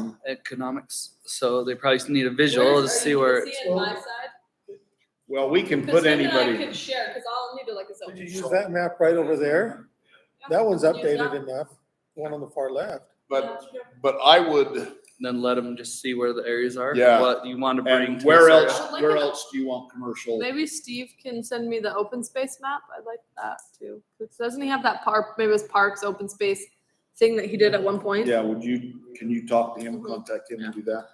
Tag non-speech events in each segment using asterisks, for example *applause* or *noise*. um, economics, so they probably need a visual to see where See it's. it my side? Well, we can 'Cause put him and I anybody, can share, because I'll need to look this up. Did you use that map right over there? That one's updated enough, one on the far left. But, but I would, Then let them just see where the areas are. Yeah. What you want to bring. and to where this else, area. where else do you want commercial? Maybe Steve can send me the open space map. I'd like that too. 'Cause Doesn't he have that park, maybe it was parks, open space thing that he did at one point? Yeah, would you, can you talk to him, contact him and do that?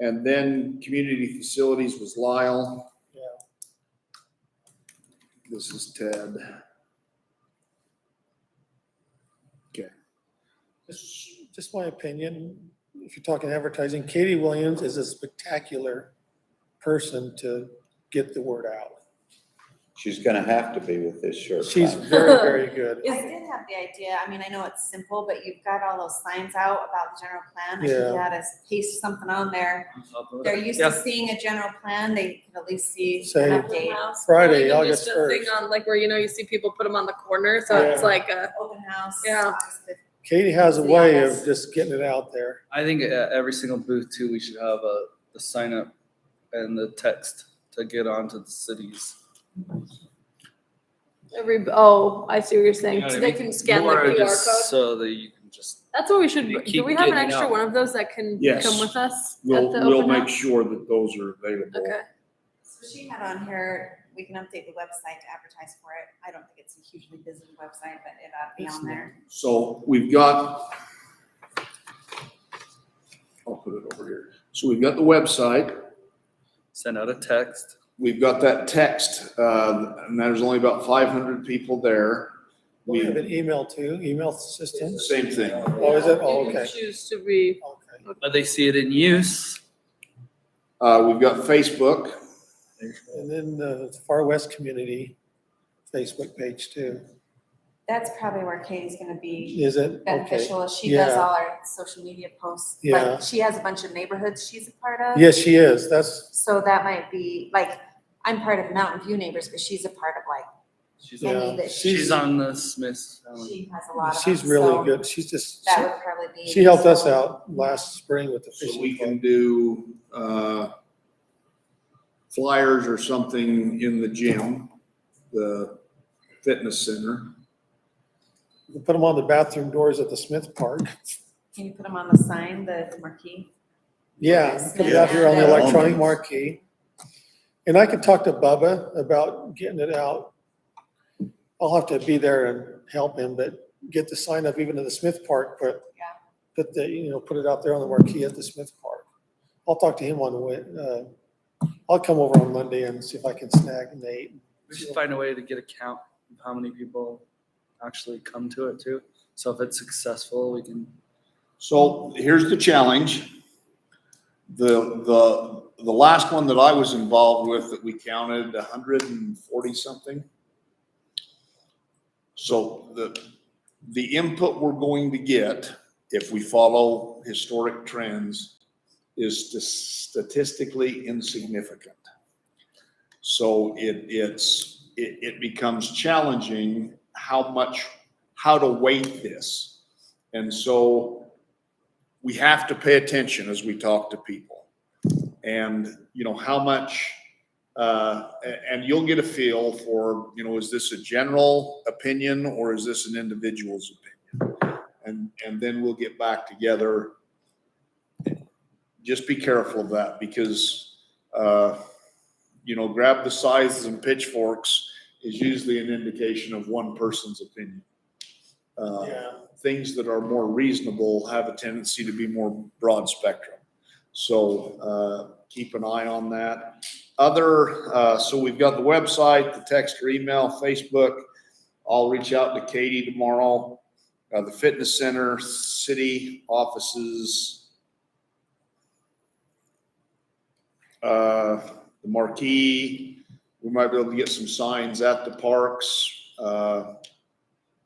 And then community facilities was Lyle. Yeah. This is Ted. Just just my opinion, if you're talking advertising, Katie Williams is a spectacular person to get the word out. She's gonna have to be with this shirt. *laughs* She's very, very good. I did have the idea, I mean, I know it's simple, but you've got all those signs out about the general plan. I Yeah. think you gotta paste something on there. On top of it. They're used to Yeah. seeing a general plan, they can at least see Say- an update. Friday, Or even August just a thing 1st. on, Like where, you know, you see people put them on the corner, so it's Yeah. like a, Open house. Yeah. Oxford. Katie has a Yeah, way of that's- just getting it out there. I think at every single booth too, we should have a, the sign up and the text to get onto the cities. every, oh, I see what you're saying. You know what I So they mean? can scan the More QR just code. So that you can just, That's what we should, You do keep we have an getting extra out. one of those that can Yes. come with us? at We'll, the we'll open make house? sure that those are available. Okay. So she had on here, we can update the website to advertise for it. I don't think it's a hugely busy website, but it ought to be It's on there. So we've got, I'll put it over here. So we've got the website, send out a text. we've got that text, uh, and there's only about five hundred people there. We have We, an email too, email system. same thing. Oh, is it? Oh, You can okay. Choose to be, Okay. But they see it in use. Uh, we've got Facebook. And then the Far West Community Facebook page too. That's probably where Katie's gonna be Is it? Okay. beneficial. She does Yeah. all our social media posts. Yeah. Like, she has a bunch of neighborhoods she's a part of. Yes, she is. That's, So that might be, like, I'm part of Mountain View Neighbors, but she's a part of like She's on, many yeah, that she, she's on the Smiths. she has a lot of. Oh. she's them, really so good. She's just, That would probably be. she helped us useful. out last spring with the So we fishing. can club. do, uh, flyers or something in the gym, the fitness center. We Put them on the bathroom doors at the Smith *laughs* Park. Can you put them on the sign, the marquee? Yeah, Yes, put it out here on the yeah. electronic marquee. And I could talk to Bubba about getting it out. I'll have to be there and help him, but get the sign up even to the Smith Park, but Yeah. put the, you know, put it out there on the marquee at the Smith Park. I'll talk to him on, Wed- uh, I'll come over on Monday and see if I can snag Nate. We should find a way to get a count of how many people actually come to it too. So if it's successful, we can So here's the challenge. The, the, the last one that I was involved with that we counted a hundred and forty something. So the, the input we're going to get, if we follow historic trends, is stas- statistically insignificant. So it, it's, it, it becomes challenging how much, how to weight this. And so we have to pay attention as we talk to people. And, you know, how much, uh, a- and you'll get a feel for, you know, is this a general opinion or is this an individual's opinion? And, and then we'll get back together. Just be careful of that because, uh, you know, grab the sizes and pitchforks is usually an indication of one person's opinion. Uh, Yeah. things that are more reasonable have a tendency to be more broad spectrum. So uh, keep an eye on that. Other, uh, so we've got the website, the text or email, Facebook. I'll reach out to Katie tomorrow. Uh, The fitness center, city offices. uh, The marquee, we might be able to get some signs at the parks. uh,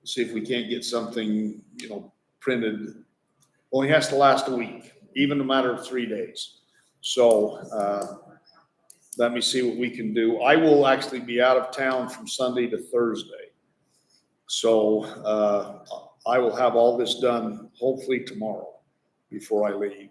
see if we can't get something, you know, printed. Only has to last a week, even a matter of three days. So, uh, let me see what we can do. I will actually be out of town from Sunday to Thursday. So, uh, I will have all this done hopefully tomorrow before I leave.